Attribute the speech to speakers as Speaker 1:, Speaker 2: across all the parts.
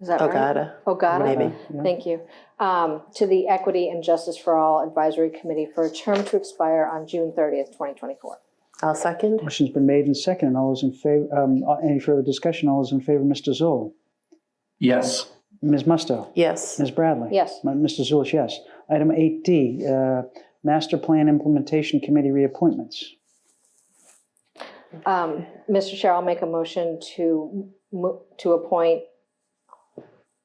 Speaker 1: Is
Speaker 2: Oh,
Speaker 1: that right?
Speaker 2: Ogata,
Speaker 1: Ogata?
Speaker 2: maybe.
Speaker 1: Thank you. Um, To the Equity and Justice for All Advisory Committee for a term to expire on June 30th, 2024.
Speaker 2: I'll second.
Speaker 3: Motion's been made and seconded. All those in favor, um, any further discussion? All those in favor, Mr. Zoll.
Speaker 4: Yes.
Speaker 3: Ms. Musto.
Speaker 2: Yes,
Speaker 3: Ms. Bradley.
Speaker 1: Yes.
Speaker 3: M- Mr. Zulish, yes. Item 8D, uh, Master Plan Implementation Committee reappointments.
Speaker 1: Um, Mr. Chair, I'll make a motion to, mo- to appoint,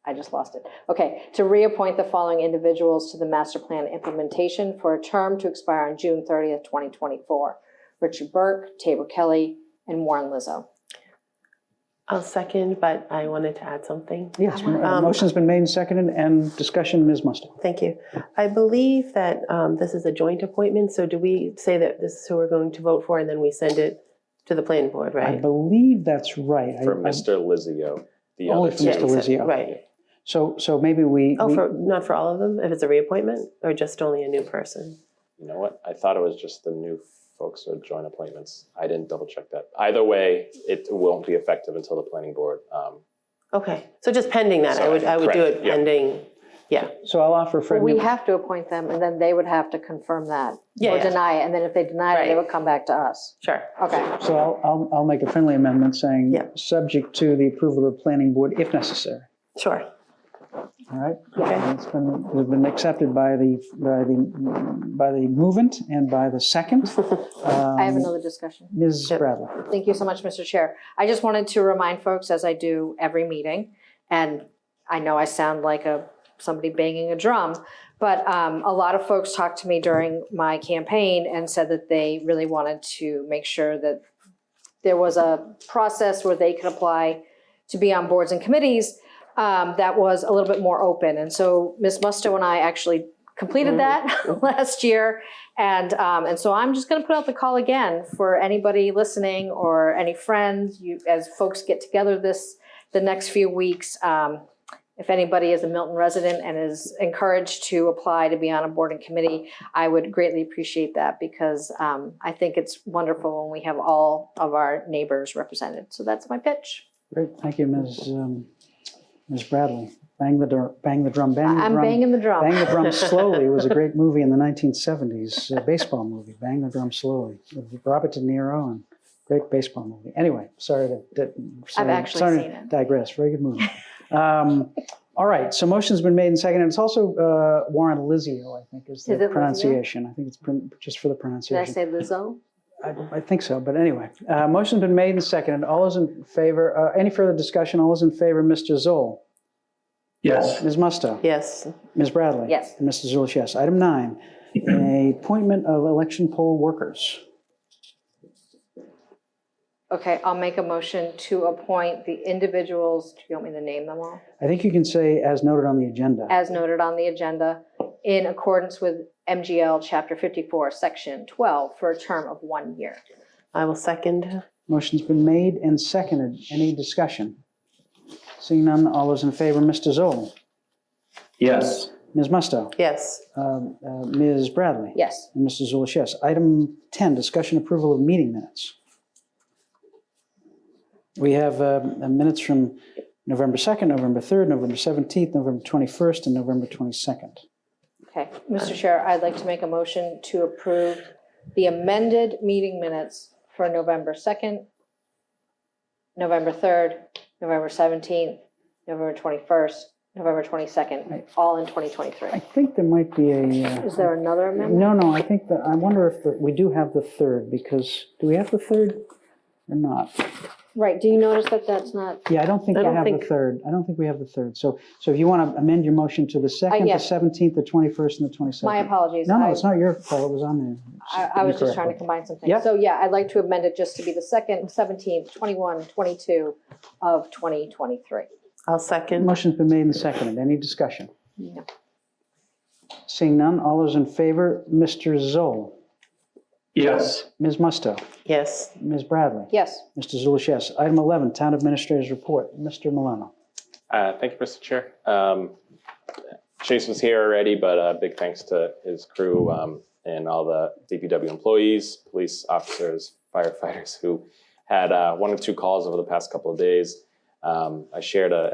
Speaker 1: I just lost it. Okay, to reappoint the following individuals to the master plan implementation for a term to expire on June 30th, 2024. Richard Burke, Tabor Kelly, and Warren Lizzo.
Speaker 2: I'll second, but I wanted to add something.
Speaker 3: Yes,
Speaker 1: Um,
Speaker 3: uh, motion's been made and seconded, and discussion, Ms. Musto.
Speaker 2: Thank you. I believe that um, this is a joint appointment, so do we say that this is who we're going to vote for and then we send it to the planning board,
Speaker 3: I
Speaker 2: right?
Speaker 3: believe that's right. I-
Speaker 5: For
Speaker 3: I-
Speaker 5: Mr. Lizio, the
Speaker 3: Only
Speaker 5: other
Speaker 3: for
Speaker 5: two.
Speaker 2: Yeah,
Speaker 3: Mr.
Speaker 2: except-
Speaker 3: Lizio.
Speaker 2: Right.
Speaker 3: So, so maybe we.
Speaker 2: Oh,
Speaker 3: we-
Speaker 2: for, not for all of them, if it's a reappointment or just only a new person?
Speaker 5: You know what? I thought it was just the new folks who joint appointments. I didn't double check that. Either way, it won't be effective until the planning board. Um,
Speaker 2: Okay, so just pending that, I would, I would do
Speaker 5: Correct,
Speaker 2: it
Speaker 5: yeah.
Speaker 2: pending, yeah.
Speaker 3: So I'll offer
Speaker 1: Well,
Speaker 3: friendly.
Speaker 1: we have to appoint them, and then they would have to confirm that.
Speaker 2: Yeah,
Speaker 1: Or
Speaker 2: yeah.
Speaker 1: deny it, and then if they deny it, they
Speaker 2: Right.
Speaker 1: would come back to us.
Speaker 2: Sure.
Speaker 1: Okay,
Speaker 3: So I'll, I'll, I'll make a friendly amendment saying,
Speaker 2: Yeah.
Speaker 3: subject to the approval of the planning board if necessary.
Speaker 2: Sure.
Speaker 3: All right?
Speaker 2: Okay.
Speaker 3: And It's been, it's been accepted by the, by the, by the movement and by the second.
Speaker 1: I have
Speaker 3: Um,
Speaker 1: another discussion.
Speaker 3: Ms.
Speaker 2: Yep.
Speaker 3: Bradley.
Speaker 1: Thank you so much, Mr. Chair. I just wanted to remind folks, as I do every meeting, and I know I sound like a, somebody banging a drum, but um, a lot of folks talked to me during my campaign and said that they really wanted to make sure that there was a process where they could apply to be on boards and committees um, that was a little bit more open. And so Ms. Musto and I actually completed that last year. And um, and so I'm just going to put out the call again for anybody listening or any friends. You as folks get together this the next few weeks. Um, if anybody is a Milton resident and is encouraged to apply to be on a board and committee, I would greatly appreciate that because um, I think it's wonderful when we have all of our neighbors represented. So that's my pitch.
Speaker 3: Great, thank you, Ms. um, Ms. Bradley. Bang the drum, bang the drum, bang the
Speaker 1: I'm
Speaker 3: drum.
Speaker 1: banging the drum.
Speaker 3: Bang the Drum Slowly was a great movie in the 1970s, a baseball movie, Bang the Drum Slowly. with Robert De Niro and great baseball movie. Anyway, sorry to, to- sorry,
Speaker 1: actually
Speaker 3: sorry
Speaker 1: seen
Speaker 3: to
Speaker 1: it.
Speaker 3: digress. Very good movie. Um, all right, so motion's been made and seconded. It's also uh, Warren Lizio, I think, is the
Speaker 1: Is it Lizio?
Speaker 3: pronunciation. I think it's pron- just for the
Speaker 1: Did I
Speaker 3: pronunciation.
Speaker 1: say Lizzo?
Speaker 3: I, I think so, but anyway, uh, motion's been made and seconded. All those in favor, uh, any further discussion? All those in favor, Mr. Zoll,
Speaker 4: Yes.
Speaker 3: Ms. Musto,
Speaker 2: Yes,
Speaker 3: Ms. Bradley,
Speaker 1: Yes.
Speaker 3: and Mr. Zulish, yes. Item nine, a appointment of election poll workers.
Speaker 1: Okay, I'll make a motion to appoint the individuals. Do you want me to name them all?
Speaker 3: I think you can say as noted on the agenda.
Speaker 1: as noted on the agenda, in accordance with MGL Chapter 54, Section 12, for a term of one year.
Speaker 2: I will second.
Speaker 3: Motion's been made and seconded. Any discussion? Seeing none, all those in favor, Mr. Zoll,
Speaker 4: Yes.
Speaker 3: Ms. Musto,
Speaker 2: Yes,
Speaker 3: um, uh, Ms. Bradley,
Speaker 1: Yes,
Speaker 3: and Mr. Zulish, yes. Item 10, discussion approval of meeting minutes. We have um, minutes from November 2nd, November 3rd, November 17th, November 21st, and November 22nd.
Speaker 1: okay. Mr. Chair, I'd like to make a motion to approve the amended meeting minutes for November 2nd, November 3rd, November 17th, November 21st, November 22nd, all in 2023.
Speaker 3: I think there might be a. uh,
Speaker 1: Is there another amendment?
Speaker 3: No, no, I think that, I wonder if, the- we do have the third, because, do we have the third or not?
Speaker 1: Right, do you notice that that's not,
Speaker 3: Yeah, I don't think
Speaker 2: I
Speaker 3: we
Speaker 2: don't
Speaker 3: have the
Speaker 2: think-
Speaker 3: third. I don't think we have the third. So, so if you want to amend your motion to the second, the
Speaker 1: yeah.
Speaker 3: seventeenth, the twenty-first, and the twenty-second.
Speaker 1: Uh, my apologies.
Speaker 3: No, no,
Speaker 1: I-
Speaker 3: it's not your fault. It was on there.
Speaker 1: I, I was just
Speaker 3: Incorrect.
Speaker 1: trying to combine some things.
Speaker 3: Yep.
Speaker 1: So yeah, I'd like to amend it just to be the second, seventeenth, twenty-one, twenty-two of twenty twenty-three.
Speaker 2: I'll second.
Speaker 3: Motion's been made and seconded. Any discussion?
Speaker 1: No.
Speaker 3: Seeing none, all those in favor, Mr. Zoll,
Speaker 4: Yes.
Speaker 3: Ms. Musto,
Speaker 2: Yes,
Speaker 3: Ms. Bradley,
Speaker 1: Yes,
Speaker 3: Mr. Zulish, yes. Item 11, Town Administrator's Report, Mr. Milano.
Speaker 5: Uh, Thank you, Mr. Chair. Um, Chase was here already, but uh, big thanks to his crew um, and all the DPW employees, police officers, firefighters who had uh, one or two calls over the past couple of days. Um, I shared a